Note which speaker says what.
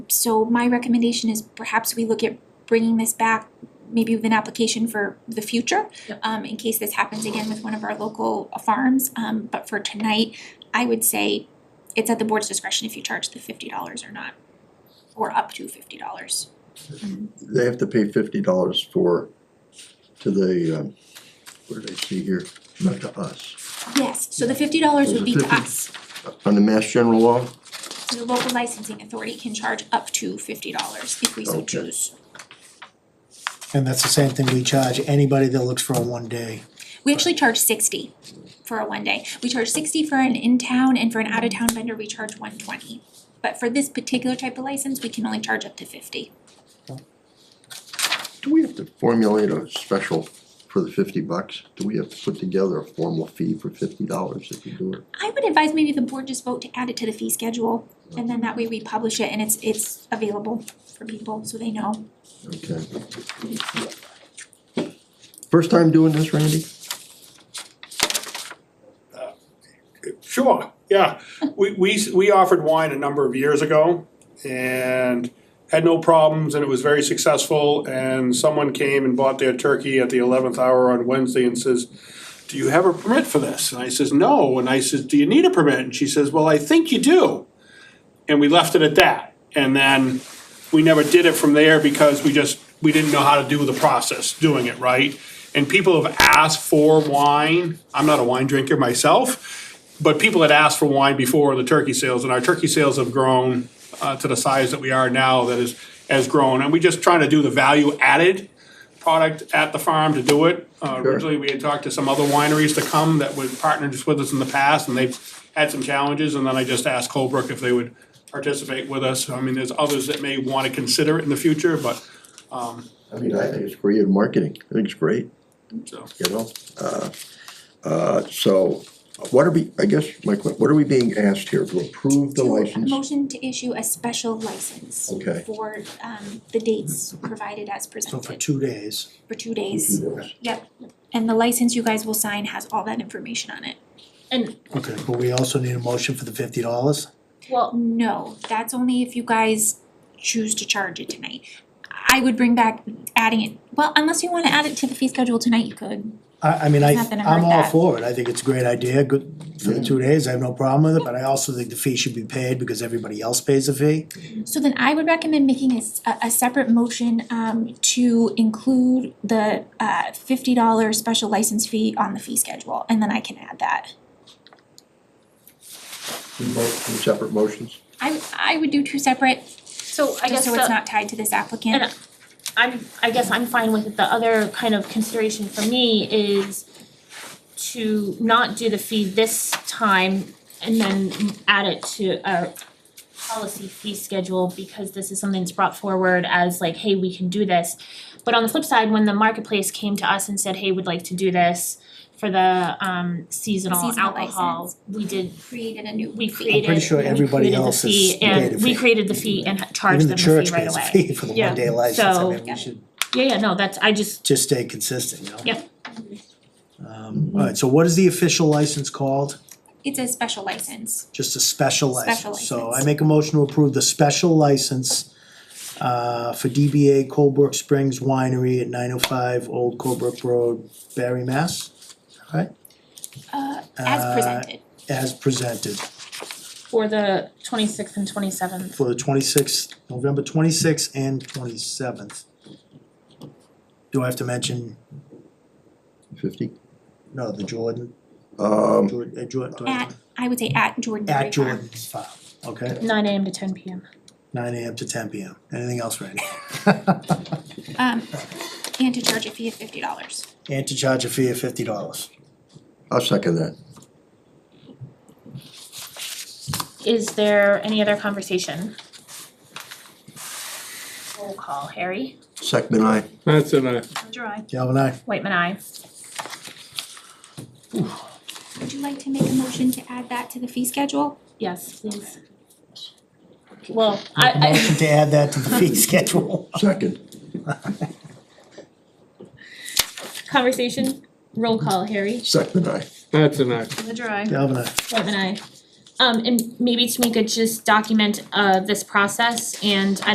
Speaker 1: So my recommendation is perhaps we look at bringing this back, maybe with an application for the future.
Speaker 2: Yep.
Speaker 1: Um, in case this happens again with one of our local uh, farms, um, but for tonight, I would say it's at the board's discretion if you charge the fifty dollars or not, or up to fifty dollars.
Speaker 3: They have to pay fifty dollars for, to the, um, what did I see here, not to us,
Speaker 1: Yes, so the fifty dollars would be to
Speaker 3: Fifty.
Speaker 1: us,
Speaker 3: on the Mass General Law,
Speaker 1: So the local licensing authority can charge up to fifty dollars if we so
Speaker 3: Okay.
Speaker 1: choose.
Speaker 4: And that's the same thing we charge anybody that looks for a one day.
Speaker 1: We actually charge sixty for a one day. We charge sixty for an in-town and for an out-of-town vendor, we charge one twenty. But for this particular type of license, we can only charge up to fifty.
Speaker 3: do we have to formulate a special for the fifty bucks? Do we have to put together a formal fee for fifty dollars if you do it?
Speaker 1: I would advise maybe the board just vote to add it to the fee schedule, and then that way we publish it and it's it's available for people, so they know.
Speaker 3: Okay. First time doing this, Randy?
Speaker 5: Sure, yeah. We, we, we offered wine a number of years ago and had no problems and it was very successful. And someone came and bought their turkey at the eleventh hour on Wednesday and says, do you have a permit for this? And I says, no. And I says, do you need a permit? And she says, well, I think you do. And we left it at that. And then we never did it from there because we just, we didn't know how to do the process, doing it right. And people have asked for wine. I'm not a wine drinker myself, but people had asked for wine before the turkey sales, and our turkey sales have grown uh, to the size that we are now, that is, has grown. And we just trying to do the value added product at the farm to do it. Uh,
Speaker 3: Sure.
Speaker 5: Originally, we had talked to some other wineries to come that would partnered with us in the past, and they've had some challenges, and then I just asked Colebrook if they would participate with us. I mean, there's others that may want to consider it in the future, but,
Speaker 3: I mean, I think it's creative marketing, I think it's great.
Speaker 5: so.
Speaker 3: you know? Uh, uh, So what are we, I guess, my que- what are we being asked here, to approve the
Speaker 1: To-
Speaker 3: license?
Speaker 1: Motion to issue a special license
Speaker 3: Okay.
Speaker 1: for um the dates provided as
Speaker 4: So for
Speaker 1: presented
Speaker 4: two days,
Speaker 1: for two days.
Speaker 3: Yes.
Speaker 1: Yep, and the license you guys will sign has all that information on it.
Speaker 2: And,
Speaker 4: okay, but we also need a motion for the fifty dollars.
Speaker 2: well,
Speaker 1: No, that's only if you guys choose to charge it tonight. I would bring back adding it, well, unless you wanna add it to the fee schedule tonight, you could.
Speaker 4: I I mean, I
Speaker 1: It's not gonna
Speaker 4: I'm
Speaker 1: hurt
Speaker 4: all
Speaker 1: that.
Speaker 4: for it, I think it's a great idea, good for the two days, I have no problem with it, but I also think the fee should be paid because everybody else pays the fee.
Speaker 1: So then I would recommend making a s- a- a separate motion um to include the uh fifty dollar special license fee on the fee schedule, and then I can add that.
Speaker 3: Two mo- two separate motions?
Speaker 1: I I would do two separate,
Speaker 2: so
Speaker 1: just
Speaker 2: I guess
Speaker 1: so it's
Speaker 2: the,
Speaker 1: not tied to this applicant.
Speaker 2: And I'm, I guess I'm fine with it. The other kind of consideration for me is to not do the fee this time and then add it to our policy fee schedule because this is something that's brought forward as like, hey, we can do this. But on the flip side, when the marketplace came to us and said, hey, we'd like to do this for the um seasonal
Speaker 1: Seasonal
Speaker 2: alcohol,
Speaker 1: license.
Speaker 2: we did,
Speaker 1: Created a new
Speaker 2: we
Speaker 1: fee.
Speaker 2: created,
Speaker 4: pretty sure
Speaker 2: we
Speaker 4: everybody
Speaker 2: created the
Speaker 4: else has
Speaker 2: fee
Speaker 4: paid a
Speaker 2: and we
Speaker 4: fee.
Speaker 2: created the fee and ha- charged
Speaker 4: Even
Speaker 2: them
Speaker 4: the
Speaker 2: the fee right away.
Speaker 4: church pays a fee for the
Speaker 2: Yeah,
Speaker 4: one day license, I
Speaker 2: so-
Speaker 4: mean, we should
Speaker 2: Yeah, yeah, no, that's, I just,
Speaker 4: just stay consistent, you know?
Speaker 2: Yep.
Speaker 4: Um, alright, so what is the official license called?
Speaker 1: It's a special license.
Speaker 4: Just a special
Speaker 1: Special
Speaker 4: license, so I
Speaker 1: license.
Speaker 4: make a motion to approve the special license uh for DBA Colebrook Springs Winery at nine oh five Old Colebrook Road, Barry, Mass. Alright,
Speaker 1: Uh, as
Speaker 4: Uh,
Speaker 1: presented.
Speaker 4: as presented
Speaker 2: For the twenty-sixth and twenty-seventh.
Speaker 4: for the twenty-sixth, November twenty-sixth and twenty-seventh. Do I have to mention,
Speaker 3: Fifty?
Speaker 4: no, the Jordan,
Speaker 3: Um,
Speaker 4: Jordan, uh, Jordan, do I have
Speaker 1: At, I would say at Jordan
Speaker 4: to-
Speaker 1: Dairy
Speaker 4: At
Speaker 1: Farm.
Speaker 4: Jordan's farm, okay?
Speaker 2: Nine AM to ten PM.
Speaker 4: Nine AM to ten PM, anything else, Randy?
Speaker 1: Um, and to charge a fee of fifty dollars.
Speaker 4: And to charge a fee of fifty dollars.
Speaker 3: I'll second that.
Speaker 2: Is there any other conversation? Roll call, Harry.
Speaker 3: Second, I,
Speaker 6: That's an I.
Speaker 2: Ledger, I.
Speaker 4: Galvin, I,
Speaker 2: Whitman, I.
Speaker 1: Would you like to make a motion to add that to the fee schedule?
Speaker 2: Yes, please. Well, I,
Speaker 4: motion to add that to the fee schedule.
Speaker 3: second,
Speaker 2: I, conversation, roll call, Harry.
Speaker 3: second, I.
Speaker 6: That's an I.
Speaker 2: Ledger, I.
Speaker 4: Galvin, I,
Speaker 2: Whitman, I. Um and maybe Tamika just document uh this process and I